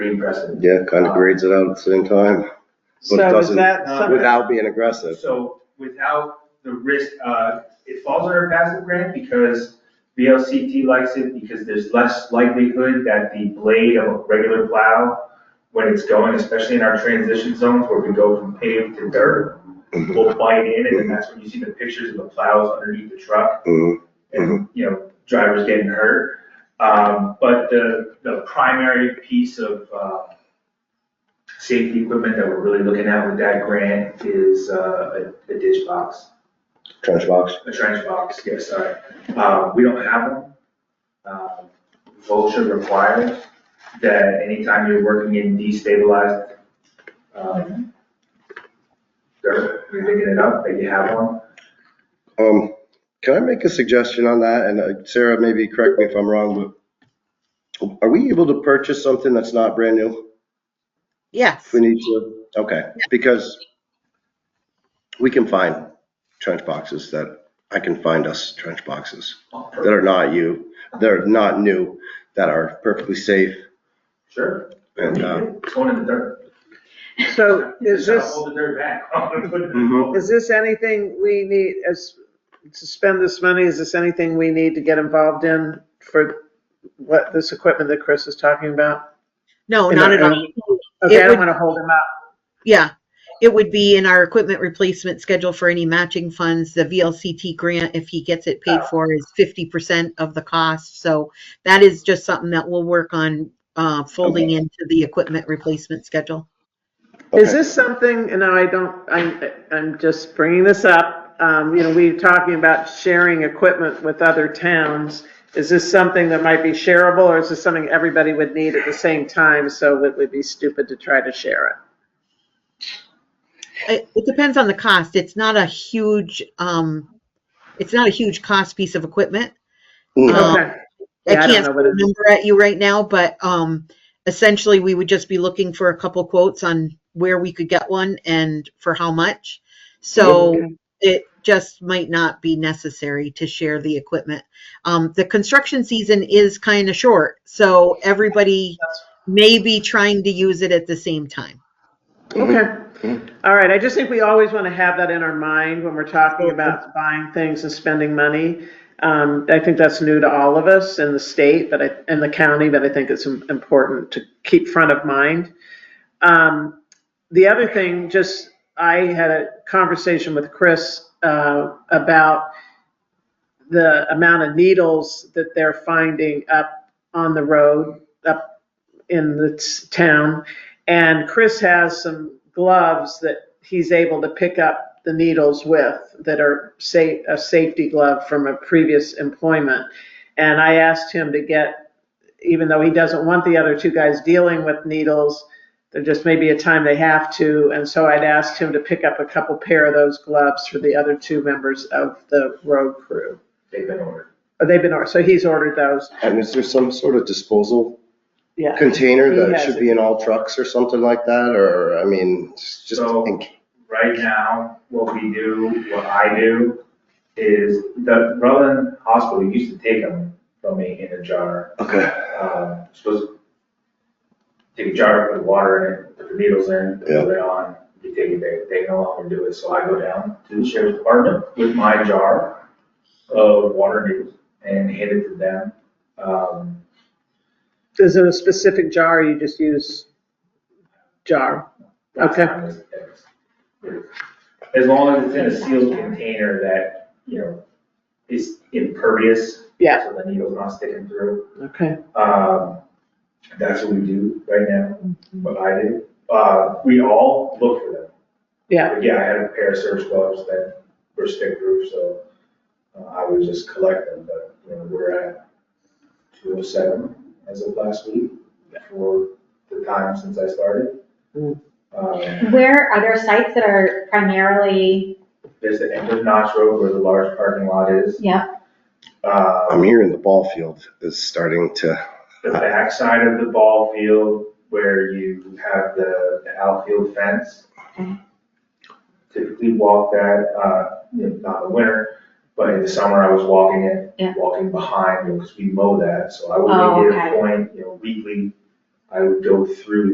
be aggressive. Yeah, kind of grades it out at the same time So is doesn't- that uh, something? without being aggressive. So without the risk, uh, it falls under passive grant because VLCT likes it because there's less likelihood that the blade of a regular plow, when it's going, especially in our transition zones where we go from paved to dirt, will bite in and then that's when you see the pictures of the plows underneath the truck Mhm. and, you know, drivers getting hurt. Um, but the, the primary piece of, uh, safety equipment that we're really looking at with that grant is, uh, a a ditch box, Trench box. a trench box, yeah, sorry. Uh, we don't have them. Um, Vulture requires that anytime you're working in destabilized, um, dirt, you're digging it up, that you have one. Um, can I make a suggestion on that? And uh, Sarah, maybe correct me if I'm wrong, but are we able to purchase something that's not brand new? Yes, If we need to, okay, because we can find trench boxes that, I can find us trench boxes that are not you, that are not new, that are perfectly safe. Sure. And, uh, It's going in the dirt. So is Gotta this, Hold the dirt back. Mhm. is this anything we need as, to spend this money? Is this anything we need to get involved in for what, this equipment that Chris is talking about? no, And not at I- all. Okay, I It don't would- want to hold him up. Yeah, it would be in our equipment replacement schedule for any matching funds. The VLCT grant, if he gets it paid for, is fifty percent of the cost. So that is just something that we'll work on uh, folding into the equipment replacement schedule. Is Okay. this something, and I don't, I'm, I'm just bringing this up, um, you know, we were talking about sharing equipment with other towns. Is this something that might be shareable, or is this something everybody would need at the same time, so it would be stupid to try to share it? It, it depends on the cost. It's not a huge, um, it's not a huge cost piece of equipment. No, Um, Okay, Yeah, I I don't can't know what it is. remember at you right now, but um, essentially, we would just be looking for a couple quotes on where we could get one and for how much. So Okay. it just might not be necessary to share the equipment. Um, The construction season is kind of short, so everybody may be trying to use it at the same time. Okay, all right, I just think we always want to have that in our mind when we're talking about buying things and spending money. Um, I think that's new to all of us in the state, but I, in the county, but I think it's im- important to keep front of mind. Um, the other thing, just, I had a conversation with Chris, uh, about the amount of needles that they're finding up on the road, up in the t- town. And Chris has some gloves that he's able to pick up the needles with that are sa- a safety glove from a previous employment. And I asked him to get, even though he doesn't want the other two guys dealing with needles, there just may be a time they have to. And so I'd asked him to pick up a couple pair of those gloves for the other two members of the road crew. They've been ordered. Oh, They've been, or- so he's ordered those. And is there some sort of disposal Yeah. container He that has should it. be in all trucks or something like that? Or, I mean, just just So- think. right now, what we do, what I do, is the Rutland Hospital used to take them from me in a jar. Okay. Um, supposed to take a jar, put the water in it, put the needles in, Yeah. put it on, you take it there, they no longer do it. So I go down to the sheriff's department with my jar of water needles and hand it to them. Um, Is it a specific jar or you just use jar? last Okay. time was- As long as it's in a sealed container that, you know, is impervious. Yeah. So the needle's not sticking through. Okay. Um, that's what we do right now, Mm-hmm. what I do. Uh, we all look for them. Yeah, But yeah, I had a pair of surge gloves that were stick proof, so uh, I would just collect them, but, you know, we're at two oh seven as of last week for the time since I started. Mm. Um, Where are there sites that are primarily, There's the end of Notch Road where the large parking lot is. yeah, I'm Uh, hearing the ball field is starting to, the backside of the ball field where you have the the outfield fence. Okay. Typically walk that, uh, you know, not in the winter, but in the summer I was walking it, Yeah. walking behind, you know, because we mow that. So I would Oh, make it a okay. point, you know, weekly I would go through